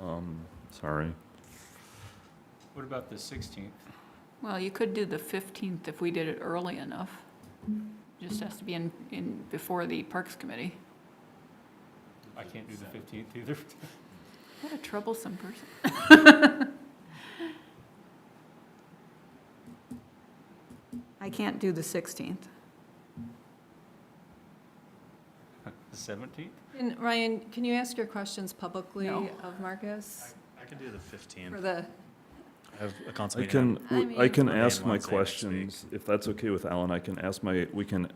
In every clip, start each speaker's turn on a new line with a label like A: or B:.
A: Um, sorry.
B: What about the 16th?
C: Well, you could do the 15th if we did it early enough. Just has to be in, in, before the Parks Committee.
B: I can't do the 15th either.
C: What a troublesome person. I can't do the 16th.
B: The 17th?
D: And Ryan, can you ask your questions publicly
C: No.
D: of Marcus
E: I can do the
D: for
E: 15th.
D: the,
E: I have a council
A: I
E: meeting on-
A: can, w- I
D: mean-
A: can
E: Monday and
A: ask
E: Wednesday
A: my
E: next
A: questions, if that's okay with Alan, I can ask my, we can,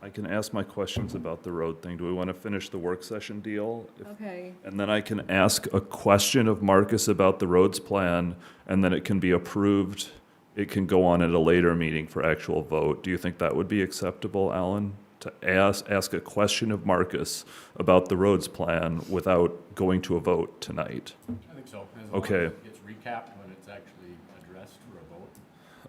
A: I can ask my questions about the road thing. Do we want to finish the work session deal? If-
D: okay,
A: And then I can ask a question of Marcus about the roads plan, and then it can be approved. It can go on at a later meeting for actual vote. Do you think that would be acceptable, Alan? To ask, ask a question of Marcus about the roads plan without going to a vote tonight?
F: I think so. as long
A: Okay.
F: as It gets recapped when it's actually addressed for a vote,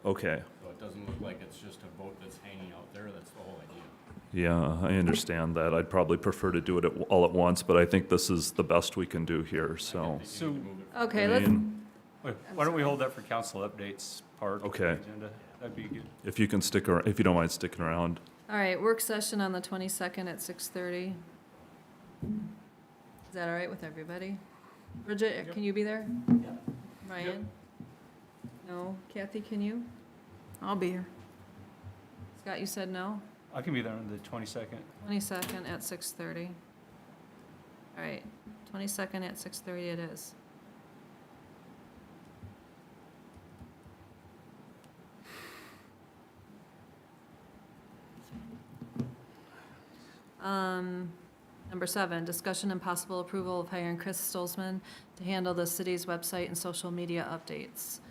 A: Okay,
F: so it doesn't look like it's just a vote that's hanging out there, that's the whole idea.
A: yeah, I understand that. I'd probably prefer to do it at- all at once, but I think this is the best we can do here, so.
B: So
D: okay,
A: I
D: let's,
A: mean,
B: wait, why don't we hold that for council updates part of the
A: Okay.
B: agenda? That'd be good.
A: If you can stick around, if you don't mind sticking around.
D: all right, work session on the 22nd at 6:30. Is that all right with everybody? Bridget, can you be there? Ryan? No? Kathy, can you?
C: I'll be here.
D: Scott, you said no?
B: I can be there on the 22nd.
D: 22nd at 6:30. All right, 22nd at 6:30 it is. Um, Number seven, discussion and possible approval of hiring Chris Stolzman to handle the city's website and social media updates.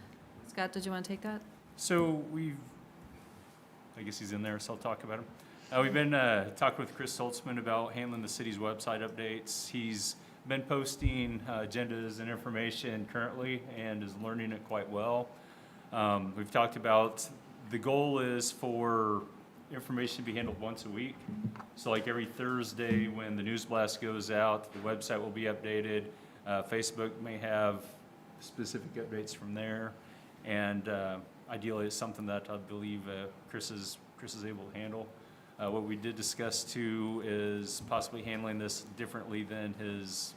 D: Scott, did you want to take that?
B: So we've, I guess he's in there, so I'll talk about him. Uh, we've been, uh, talking with Chris Holtzman about handling the city's website updates. He's been posting uh, agendas and information currently and is learning it quite well. Um, we've talked about, the goal is for information to be handled once a week. So like every Thursday, when the news blast goes out, the website will be updated. Uh, Facebook may have specific updates from there. And uh, ideally, it's something that I believe uh, Chris is, Chris is able to handle. Uh, What we did discuss too is possibly handling this differently than his,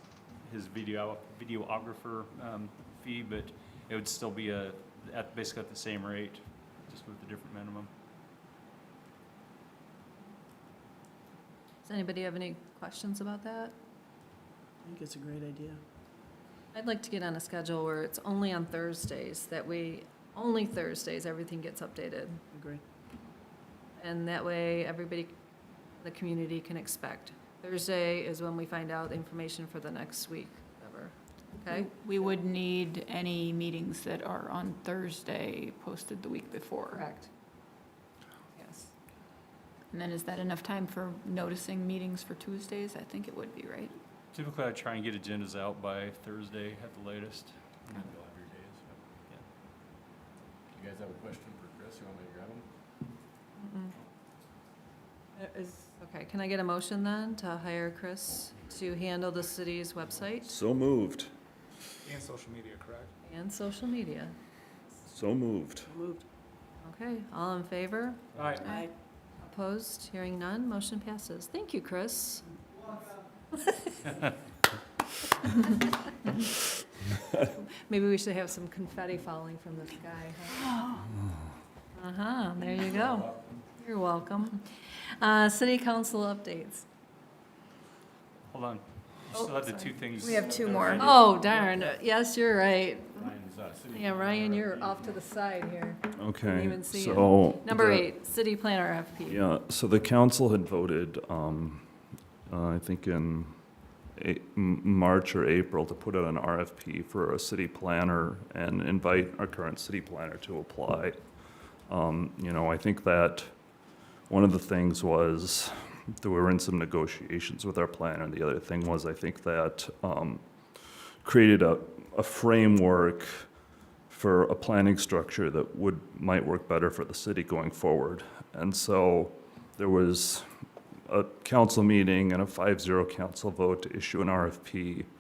B: his video, videographer um, fee, but it would still be a, at, basically at the same rate, just with a different minimum.
D: Does anybody have any questions about that?
G: I think it's a great idea.
D: I'd like to get on a schedule where it's only on Thursdays, that we, only Thursdays, everything gets updated.
G: Agree.
D: And that way, everybody, the community can expect. Thursday is when we find out information for the next week, whatever. Okay?
C: We would need any meetings that are on Thursday posted the week before.
D: Correct. Yes.
C: And then is that enough time for noticing meetings for Tuesdays? I think it would be, right?
B: Typically, I try and get agendas out by Thursday at the latest.
F: You'll have your days, yeah. You guys have a question for Chris, you want me to grab him?
D: Mm-mm. Uh, Okay, can I get a motion then to hire Chris to handle the city's website
A: So moved,
H: And social media, correct?
D: and social media?
A: so moved.
G: Moved.
D: Okay, all in favor?
B: All right.
G: Aye.
D: Opposed? Hearing none, motion passes. Thank you, Chris. Maybe we should have some confetti falling from the sky. huh? Uh-huh, there you go. You're welcome. Uh, City council updates.
B: Hold on. You
D: Oh,
B: still have the
D: sorry.
B: two things.
C: We have two
B: that are
C: more.
B: pending.
D: Oh darn, yes, you're right.
F: Ryan's, uh, sitting
D: Yeah,
F: in
D: Ryan,
F: there.
D: you're off to the side here.
A: Okay,
D: even see it.
A: so.
D: Number
A: the-
D: eight, city planner FP.
A: Yeah, so the council had voted, um, uh, I think in A- M- March or April, to put out an RFP for a city planner and invite our current city planner to apply. Um, you know, I think that one of the things was that we were in some negotiations with our planner. The other thing was, I think that, um, created a, a framework for a planning structure that would, might work better for the city going forward. And so there was a council meeting and a 5-0 council vote to issue an RFP